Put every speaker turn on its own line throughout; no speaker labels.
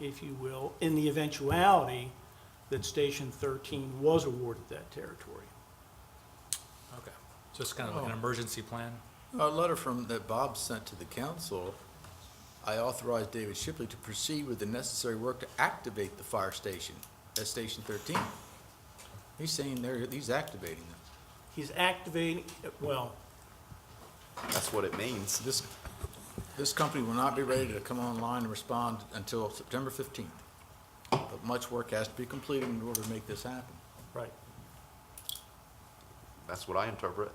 if you will, in the eventuality that Station 13 was awarded that territory.
Okay, so it's kind of like an
Oh.
emergency plan?
A letter from, that Bob sent to the council, I authorized David Shipley to proceed with the necessary work to activate the fire station at Station Thirteen. He's saying there, he's activating them.
He's activating, well,
That's what it means.
This, this company will not be ready to come online and respond until September fifteenth. But much work has to be completed in order to make this happen.
right.
That's what I interpret.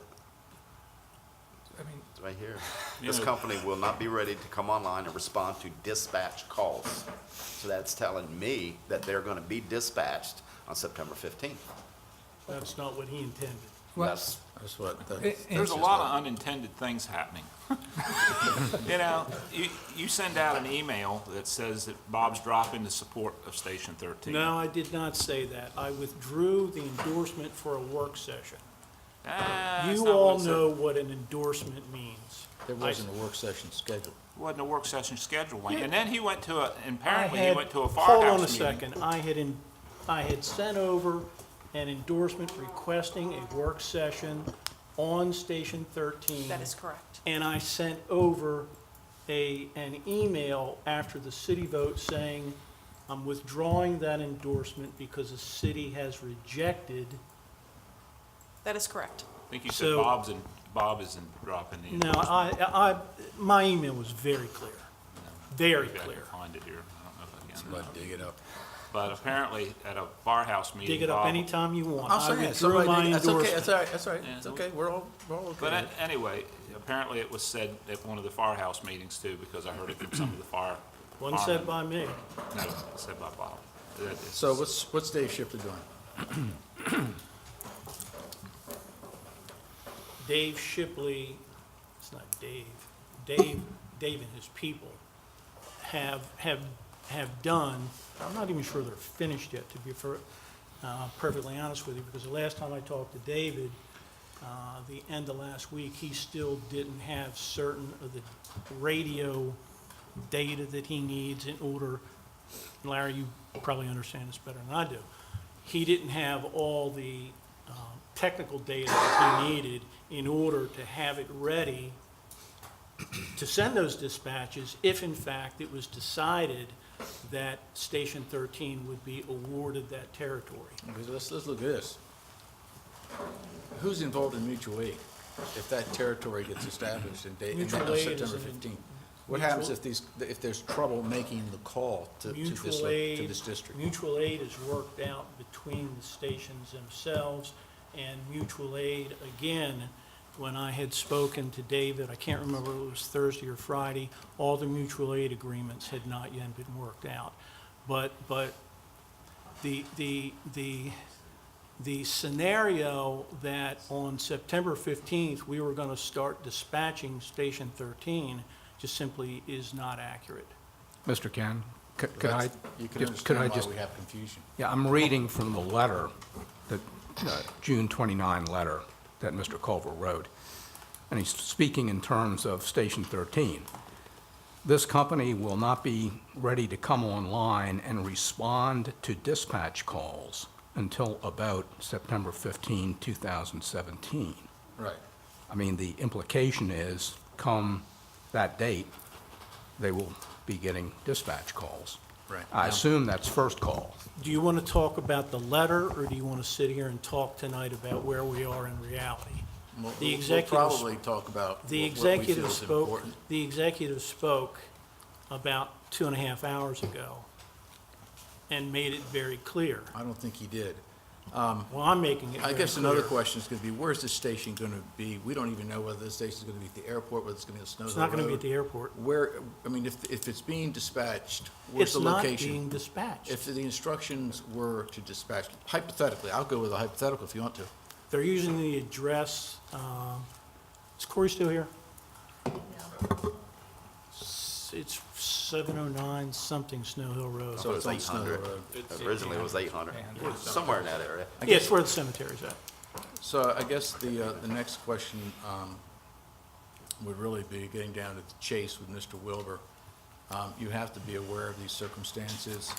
I mean,
It's right here. This company will not be ready to come online and respond to dispatch calls. So that's telling me that they're gonna be dispatched on September fifteenth.
That's not what he intended.
That's,
That's what, that's.
There's a lot of unintended things happening. You know, you, you send out an email that says that Bob's dropping the support of Station 13.
No, I did not say that. I withdrew the endorsement for a work session.
Ah, that's
You
not what
all
it said.
know what an endorsement means.
There wasn't a work session scheduled.
Wasn't a work session scheduled, Wayne.
Yeah.
And then he went to a, and
I
apparently he
had-
went to a
Hold on a
firehouse meeting.
second. I had, en- I had sent over an endorsement requesting a work session on Station 13.
That is correct.
And I sent over a, an email after the city vote saying, I'm withdrawing that endorsement because the city has rejected.
That is correct.
I think you said
So-
Bob's and, Bob is in- dropping the.
Now, I, I, my email was very clear, very
Maybe I can
clear.
find it here. I don't know if I
But
can.
dig it up.
But apparently at a firehouse meeting.
Dig it up
Bob-
anytime you want.
I'm
I
sorry,
withdrew
somebody
my
did- that's okay,
endorsement.
that's all right, that's all right,
Yeah.
it's okay, we're all, we're all okay.
But
with
a-
it.
anyway, apparently it was said at one of the firehouse meetings too, because I heard it from some of the fire.
One said
firemen.
by me.
No, it said by Bob. That is-
So what's, what's Dave Shipley doing?
Dave Shipley, it's not Dave, Dave, Dave and his people have, have, have done, I'm not even sure they're finished yet, to be fer- uh, perfectly honest with you, because the last time I talked to David, uh, the end of last week, he still didn't have certain of the radio data that he needs in order, Larry, you probably understand this better than I do. He didn't have all the um, technical data that he needed in order to have it ready to send those dispatches if in fact it was decided that Station 13 would be awarded that territory.
Because Let's, let's look at this. Who's involved in mutual aid if that territory gets established in date, in
Mutual aid is
September
an-
fifteenth? What happens
mutual-
if these, if there's trouble making the call to, to this,
Mutual
lo-
aid.
to this district?
Mutual aid is worked out between the stations themselves, and mutual aid, again, when I had spoken to David, I can't remember if it was Thursday or Friday, all the mutual aid agreements had not yet been worked out. But, but the, the, the, the scenario that on September 15th, we were going to start dispatching Station 13 just simply is not accurate.
Mr. Ken, c- could I,
That's- You can
just- could I
understand why
just,
we have confusion.
yeah, I'm reading from the letter, the uh, June 29 letter that Mr. Culver wrote, and he's speaking in terms of Station 13. This company will not be ready to come online and respond to dispatch calls until about September 15, 2017.
Right.
I mean, the implication is, come that date, they will be getting dispatch calls.
Right.
I assume that's first call.
Do you want to talk about the letter, or do you want to sit here and talk tonight about where we are in reality?
We'll-
The
we'll-
executive
We'll probably talk about
The
what- what we feel
executive
is
spoke,
important.
the executive spoke about two and a half hours ago and made it very clear.
I don't think he did.
Well, I'm making it very
Uh-huh. I
clear.
guess another question is gonna be, where's the station gonna be? We don't even know whether the station's gonna be at the airport, whether it's gonna be at Snow's
It's
Hill
not going to be
Road.
at the airport.
Where, I mean, if, if it's being dispatched, where's
It's
the
not
location?
being dispatched.
If the instructions were to dispatch, hypothetically, I'll go with a hypothetical if you want to.
They're using the address, um, is Corey still here? S- It's 709 something Snow Hill Road.
So it's on Snow Hill
800.
Road.
Originally it was eight hundred, somewhere in that area.
I
Yeah, it's
guess-
where the cemetery's at.
So I guess the, uh, the next question um, would really be getting down to the chase with Mr. Wilbur Um, You have to be aware of these circumstances.